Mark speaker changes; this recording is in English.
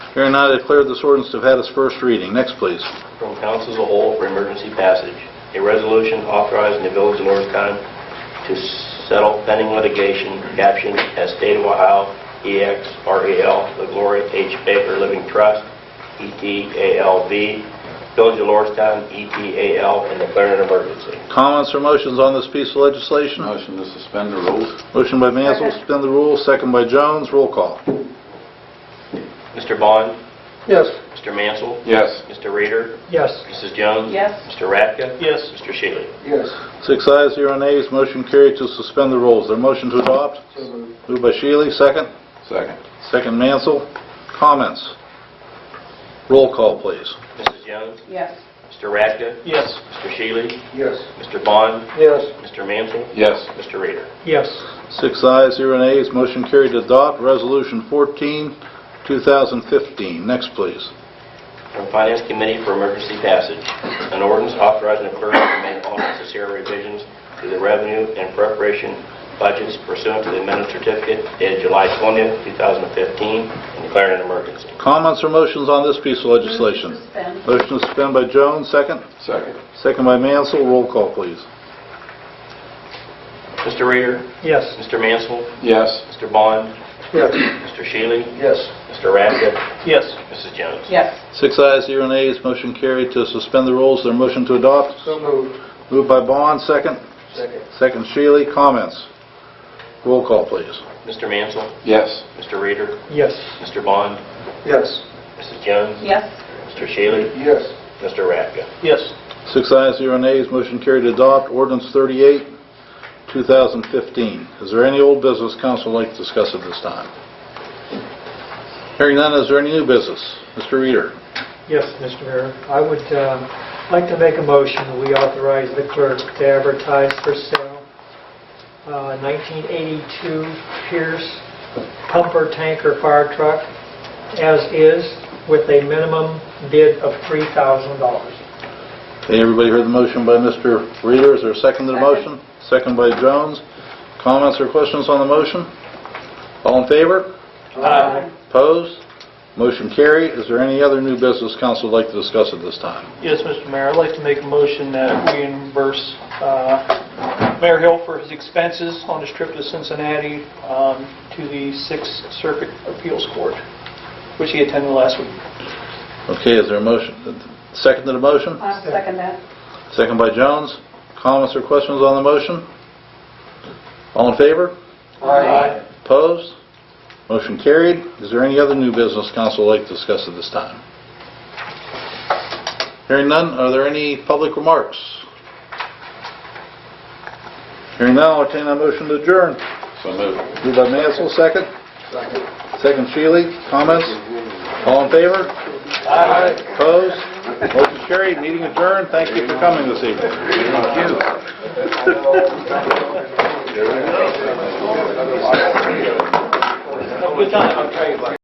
Speaker 1: Hearing none, I declare this ordinance to have had its first reading. Next, please.
Speaker 2: From council as a whole for emergency passage, a resolution authorizing the village of Norristown to settle pending litigation captioned as State of Ohio E EXREL, the Gloria H. Baker Living Trust, E ETALV, Village of E Norristown, ETAL, and declaring an emergency.
Speaker 1: Comments or motions on this piece of legislation?
Speaker 3: Motion to suspend the rules?
Speaker 1: Motion by Mansell,
Speaker 4: Second.
Speaker 1: suspend the rules, second by Jones, roll call.
Speaker 2: Mr. Bond?
Speaker 1: Yes.
Speaker 2: Mr. Mansell?
Speaker 3: Yes.
Speaker 2: Mr. Reader?
Speaker 5: yes,
Speaker 2: Mrs. Jones?
Speaker 4: Yes.
Speaker 2: Mr. Radka?
Speaker 5: Yes.
Speaker 2: Mr. Shealy?
Speaker 6: yes,
Speaker 1: Six ayes, zero nays, motion carried to suspend the rules. There a motion to adopt?
Speaker 6: so moved.
Speaker 1: Moved by Shealy, second.
Speaker 3: Second.
Speaker 1: Second Mansell. Comments? Roll call, please.
Speaker 2: Mrs. Jones?
Speaker 4: yes,
Speaker 2: Mr. Radka?
Speaker 5: yes,
Speaker 2: Mr. Shealy?
Speaker 6: yes,
Speaker 2: Mr. Bond?
Speaker 6: yes,
Speaker 2: Mr. Mansell?
Speaker 3: Yes.
Speaker 2: Mr. Reader?
Speaker 5: yes,
Speaker 1: Six ayes, zero nays, motion carried to adopt Resolution 14, 2015. Next, please.
Speaker 2: from Finance Committee for emergency passage. An ordinance authorizing the clerk to make all necessary revisions to the revenue and preparation budgets pursuant to the amended certificate dated July 20th, 2015, and declaring an emergency.
Speaker 1: Comments or motions on this piece of legislation?
Speaker 4: Move to suspend.
Speaker 1: Motion to suspend by Jones, second.
Speaker 3: Second.
Speaker 1: Second by Mansell. Roll call, please.
Speaker 2: Mr. Reader,
Speaker 5: yes.
Speaker 2: Mr. Mansell,
Speaker 3: Yes.
Speaker 2: Mr. Bond,
Speaker 6: yes,
Speaker 2: Mr. Shealy,
Speaker 6: yes.
Speaker 2: Mr. Radka,
Speaker 5: Yes.
Speaker 2: Mrs. Jones.
Speaker 4: yes,
Speaker 1: Six ayes, zero nays, motion carried to suspend the rules. There a motion to adopt?
Speaker 6: So moved.
Speaker 1: Moved by Bond, second.
Speaker 6: Second.
Speaker 1: Second Shealy. Comments? Roll call, please.
Speaker 2: Mr. Mansell,
Speaker 3: Yes.
Speaker 2: Mr. Reader,
Speaker 5: Yes.
Speaker 2: Mr. Bond,
Speaker 6: Yes.
Speaker 2: Mrs. Jones,
Speaker 4: yes,
Speaker 2: Mr. Shealy,
Speaker 6: Yes.
Speaker 2: Mr. Radka.
Speaker 5: Yes.
Speaker 1: Six ayes, zero nays, motion carried to adopt ordinance 38, 2015. Is there any old business council would like to discuss at this time? Hearing none, is there any new business? Mr. Reader?
Speaker 5: Yes, Mr. Mayor. I would um, like to make a motion that we authorize the clerk to advertise for sale uh, 1982 Pierce pumper tanker fire truck as is with a minimum bid of $3,000.
Speaker 1: Okay, everybody heard the motion by Mr. Reader. Is there a second to the motion? Second
Speaker 4: Second.
Speaker 1: by Jones. Comments or questions on the motion? All in favor?
Speaker 2: Aye.
Speaker 1: Opposed? Motion carried. Is there any other new business council would like to discuss at this time?
Speaker 7: Yes, Mr. Mayor, I'd like to make a motion that we reimburse uh, Mayor Hill for his expenses on his trip to Cincinnati um, to the Sixth Circuit Appeals Court, which he attended last week.
Speaker 1: Okay, is there a motion? Second to the motion?
Speaker 4: I'll second that.
Speaker 1: Second by Jones. Comments or questions on the motion? All in favor?
Speaker 6: Aye.
Speaker 1: Opposed? Motion carried. Is there any other new business council would like to discuss at this time? Hearing none, are there any public remarks? Hearing none, I'll entertain a motion to adjourn.
Speaker 3: So moved.
Speaker 1: Moved by Mansell, second.
Speaker 6: Second.
Speaker 1: Second Shealy. Comments? All in favor? Aye. Opposed? Motion carried. Meeting adjourned. Thank you for coming this evening.
Speaker 7: Have a Good time.